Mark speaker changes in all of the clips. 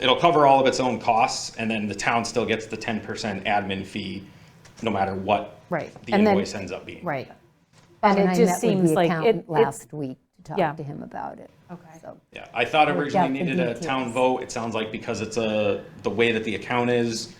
Speaker 1: it'll cover all of its own costs, and then the town still gets the ten percent admin fee, no matter what
Speaker 2: Right,
Speaker 1: the
Speaker 3: and then-
Speaker 1: invoice ends up being.
Speaker 2: right.
Speaker 3: And
Speaker 4: And
Speaker 3: it
Speaker 4: I
Speaker 3: just
Speaker 4: met with
Speaker 3: seems
Speaker 4: the
Speaker 3: like it-
Speaker 4: accountant
Speaker 3: it-
Speaker 4: last week to
Speaker 3: Yeah.
Speaker 4: talk to him about it.
Speaker 2: Okay.
Speaker 4: So,
Speaker 1: Yeah, I thought
Speaker 4: Worked
Speaker 1: originally
Speaker 4: out the
Speaker 1: needed a town
Speaker 4: details.
Speaker 1: vote. It sounds like because it's a, the way that the account is,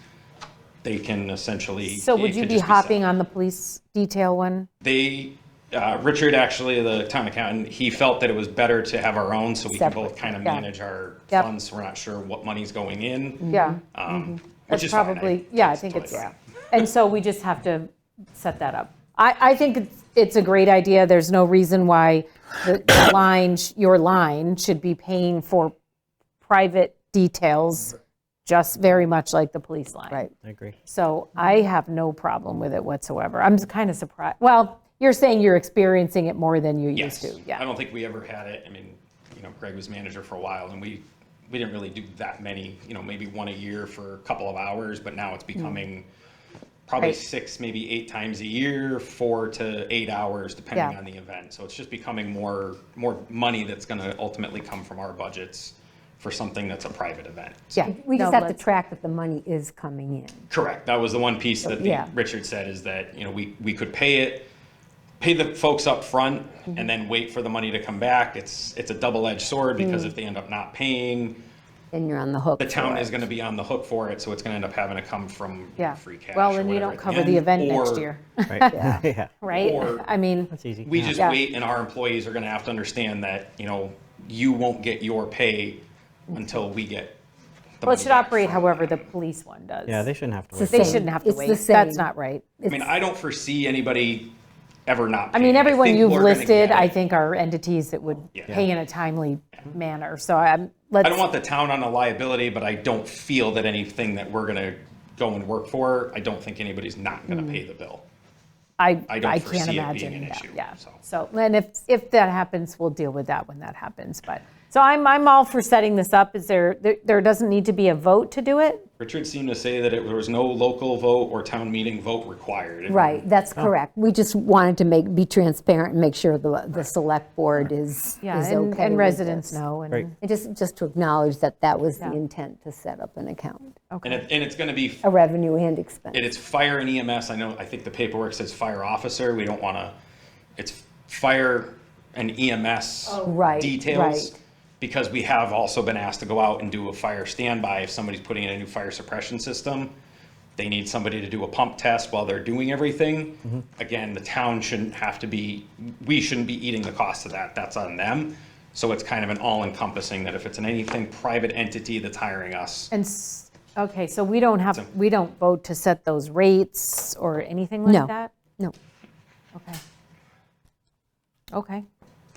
Speaker 1: they can essentially.
Speaker 3: So
Speaker 1: it
Speaker 3: would you
Speaker 1: could
Speaker 3: be
Speaker 1: just
Speaker 3: hopping
Speaker 1: set.
Speaker 3: on the police detail one?
Speaker 1: They, uh, Richard, actually, the town accountant, he felt that it was better to have our own so we can
Speaker 3: Separate,
Speaker 1: both kind of
Speaker 3: yeah.
Speaker 1: manage our
Speaker 3: Yep.
Speaker 1: funds. so We're not sure what money's going in.
Speaker 3: Yeah.
Speaker 1: um, Which
Speaker 3: That's
Speaker 1: is fine. I-
Speaker 3: probably, yeah, I think it's,
Speaker 1: totally
Speaker 3: and so we just have to set that up. I, I think it's- it's a great idea. There's no reason why the the line, sh- your line should be paying for private details, just very much like the police line.
Speaker 4: right.
Speaker 5: I agree.
Speaker 3: So I have no problem with it whatsoever. I'm kind of surprised. Well, you're saying you're experiencing it more than you used
Speaker 1: Yes.
Speaker 3: to.
Speaker 1: I
Speaker 3: Yeah.
Speaker 1: don't think we ever had it. I mean, you know, Greg was manager for a while and we, we didn't really do that many, you know, maybe one a year for a couple of hours, but now it's becoming probably
Speaker 3: Mm. Right.
Speaker 1: six, maybe eight times a year, four to eight hours, depending
Speaker 3: Yeah.
Speaker 1: on the event. So it's just becoming more, more money that's going to ultimately come from our budgets for something that's a private event.
Speaker 3: Yeah.
Speaker 4: We just
Speaker 3: No,
Speaker 4: have to
Speaker 3: let's-
Speaker 4: track that the money is coming in.
Speaker 1: Correct. That was the one piece that the-
Speaker 4: Yeah.
Speaker 1: Richard said is that, you know, we, we could pay it, pay the folks up front and then wait for the money to come back. It's, it's a double-edged sword because if they end up not paying,
Speaker 4: Then you're on the hook.
Speaker 1: the town
Speaker 4: for
Speaker 1: is
Speaker 4: it.
Speaker 1: going to be on the hook for it. So it's going to end up having to come from
Speaker 3: Yeah.
Speaker 1: free cash.
Speaker 3: Well,
Speaker 1: or
Speaker 3: then you
Speaker 1: whatever
Speaker 3: don't
Speaker 1: at
Speaker 3: cover the
Speaker 1: end,
Speaker 3: event next
Speaker 1: or
Speaker 3: year,
Speaker 5: Right. Yeah.
Speaker 3: right?
Speaker 1: Or-
Speaker 3: I mean,
Speaker 5: That's easy.
Speaker 1: We
Speaker 5: Yeah.
Speaker 1: just
Speaker 3: Yeah.
Speaker 1: wait and our employees are going to have to understand that, you know, you won't get your pay until we get. the
Speaker 3: well, it
Speaker 1: money
Speaker 3: should
Speaker 1: back
Speaker 3: operate
Speaker 1: from-
Speaker 3: however the police one does.
Speaker 5: Yeah, they shouldn't have to
Speaker 4: It's
Speaker 5: wait.
Speaker 4: the
Speaker 3: They
Speaker 4: same.
Speaker 3: shouldn't have to
Speaker 4: It's the
Speaker 3: wait.
Speaker 4: same.
Speaker 3: That's not right.
Speaker 1: I mean, I don't foresee anybody ever not.
Speaker 3: I mean,
Speaker 1: paying.
Speaker 3: everyone
Speaker 1: think
Speaker 3: you've
Speaker 1: we're gonna
Speaker 3: listed,
Speaker 1: get
Speaker 3: I
Speaker 1: it.
Speaker 3: think are entities that would
Speaker 1: Yeah.
Speaker 3: pay in a timely manner. So I'm, let's.
Speaker 1: I don't want the town on a liability, but I don't feel that anything that we're gonna go and work for, I don't think anybody's not gonna pay the bill.
Speaker 3: I,
Speaker 1: I don't
Speaker 3: I
Speaker 1: foresee it
Speaker 3: can't
Speaker 1: being
Speaker 3: imagine
Speaker 1: an
Speaker 3: that,
Speaker 1: issue,
Speaker 3: yeah.
Speaker 1: so.
Speaker 3: So, and if, if that happens, we'll deal with that when that happens, but, so I'm, I'm all for setting this up. Is there, there- there doesn't need to be a vote to do it?
Speaker 1: Richard seemed to say that it there was no local vote or town meeting vote required. And
Speaker 4: Right, that's
Speaker 3: Oh.
Speaker 4: correct. We just wanted to make, be transparent and make sure the, the select board is, is okay
Speaker 3: Yeah, and, and
Speaker 4: with
Speaker 3: residents
Speaker 4: this.
Speaker 3: know, and.
Speaker 5: Right.
Speaker 4: And just, just to acknowledge that that was the
Speaker 3: Yeah.
Speaker 4: intent to set up an account,
Speaker 1: And it, and it's gonna be,
Speaker 4: a revenue and expense.
Speaker 1: it is fire and EMS, I know, I think the paperwork says fire officer, we don't wanna, it's fire and EMS
Speaker 4: right,
Speaker 1: details.
Speaker 4: right.
Speaker 1: Because we have also been asked to go out and do a fire standby, if somebody's putting in a new fire suppression system, they need somebody to do a pump test while they're doing
Speaker 4: Mm-hmm.
Speaker 1: everything. Again, the town shouldn't have to be, we shouldn't be eating the cost of that, that's on them. So it's kind of an all encompassing that if it's an anything private entity that's hiring us,
Speaker 3: And, s- okay, so we don't have, we don't vote to set those rates or anything
Speaker 4: No.
Speaker 3: like that?
Speaker 4: No,
Speaker 3: Okay. Okay.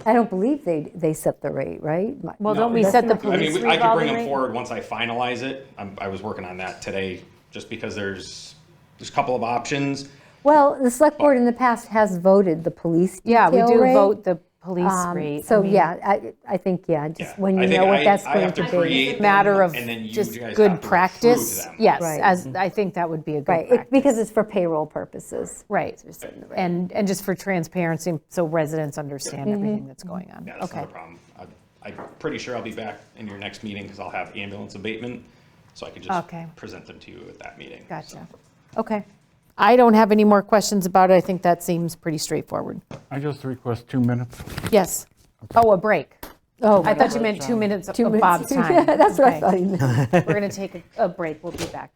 Speaker 4: I don't believe they, they set the rate, right? My-
Speaker 3: Well, don't we set
Speaker 1: I
Speaker 3: the
Speaker 1: mean,
Speaker 3: police
Speaker 1: we- I could bring
Speaker 3: revolving
Speaker 1: them
Speaker 3: rate?
Speaker 1: forward once I finalize it. I'm, I was working on that today, just because there's, there's a couple of options.
Speaker 4: Well, the select board in the past has voted the police
Speaker 3: Yeah, we
Speaker 4: detail
Speaker 3: do
Speaker 4: rate.
Speaker 3: vote the police
Speaker 4: Um,
Speaker 3: rate. I
Speaker 4: So,
Speaker 3: mean,
Speaker 4: yeah, I, I think, yeah, just
Speaker 1: Yeah.
Speaker 4: when
Speaker 1: I
Speaker 4: you
Speaker 1: think
Speaker 4: know
Speaker 1: I-
Speaker 4: what that's
Speaker 1: I
Speaker 4: going
Speaker 1: have
Speaker 4: to
Speaker 1: to
Speaker 4: be.
Speaker 1: create them,
Speaker 3: Matter of
Speaker 1: and then you
Speaker 3: just
Speaker 1: guys have to
Speaker 3: good
Speaker 1: approve
Speaker 3: practice.
Speaker 1: them.
Speaker 3: Yes,
Speaker 4: Right.
Speaker 3: as, I think that would be a good
Speaker 4: Right, it-
Speaker 3: practice.
Speaker 4: because it's for payroll purposes.
Speaker 3: Right,
Speaker 4: It's in the rate. Mm-hmm.
Speaker 3: and, and just for transparency, so residents understand everything that's going on.
Speaker 1: Yeah, that's
Speaker 3: Okay.
Speaker 1: not a problem. I- I'm pretty sure I'll be back in your next meeting because I'll have ambulance abatement, so I could just
Speaker 3: Okay.
Speaker 1: present them to you at that meeting.
Speaker 3: Gotcha, okay. I don't have any more questions about it, I think that seems pretty straightforward.
Speaker 6: I just request two minutes.
Speaker 3: Yes, oh, a break.
Speaker 4: Oh,
Speaker 3: I thought you meant two minutes of
Speaker 4: two
Speaker 3: of
Speaker 4: minutes.
Speaker 3: Oh, Bob's time.
Speaker 4: That's what I
Speaker 3: Okay.
Speaker 4: thought you meant.
Speaker 3: We're going to take a a break, we'll be back.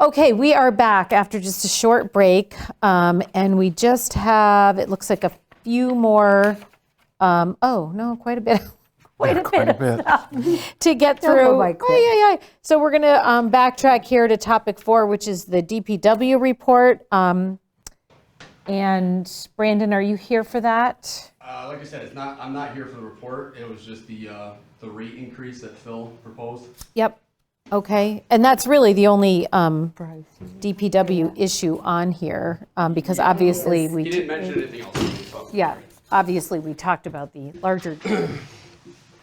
Speaker 3: Okay, we are back after just a short break, um, and we just have, it looks like a few more, um, oh, no, quite a bit, quite a
Speaker 6: Quite a
Speaker 3: bit
Speaker 6: bit.
Speaker 3: to get
Speaker 4: go
Speaker 3: through.
Speaker 4: by quick.
Speaker 3: Ay, ay, ay. So we're going to um, backtrack here to topic four, which is the DPW report. Um, and Brandon, are you here for that?
Speaker 7: Uh, like I said, it's not, I'm not here for the report. It was just the, uh, the rate increase that Phil proposed.
Speaker 3: Yep. Okay. And that's really the only um, DPW issue on here um, because obviously we.
Speaker 7: He didn't mention anything else.
Speaker 3: Yeah, obviously, we talked about the larger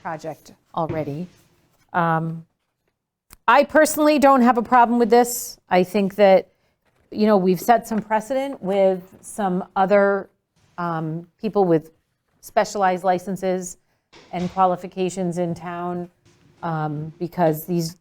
Speaker 3: project already. Um, I personally don't have a problem with this. I think that, you know, we've set some precedent with some other um, people with specialized licenses and qualifications in town um, because these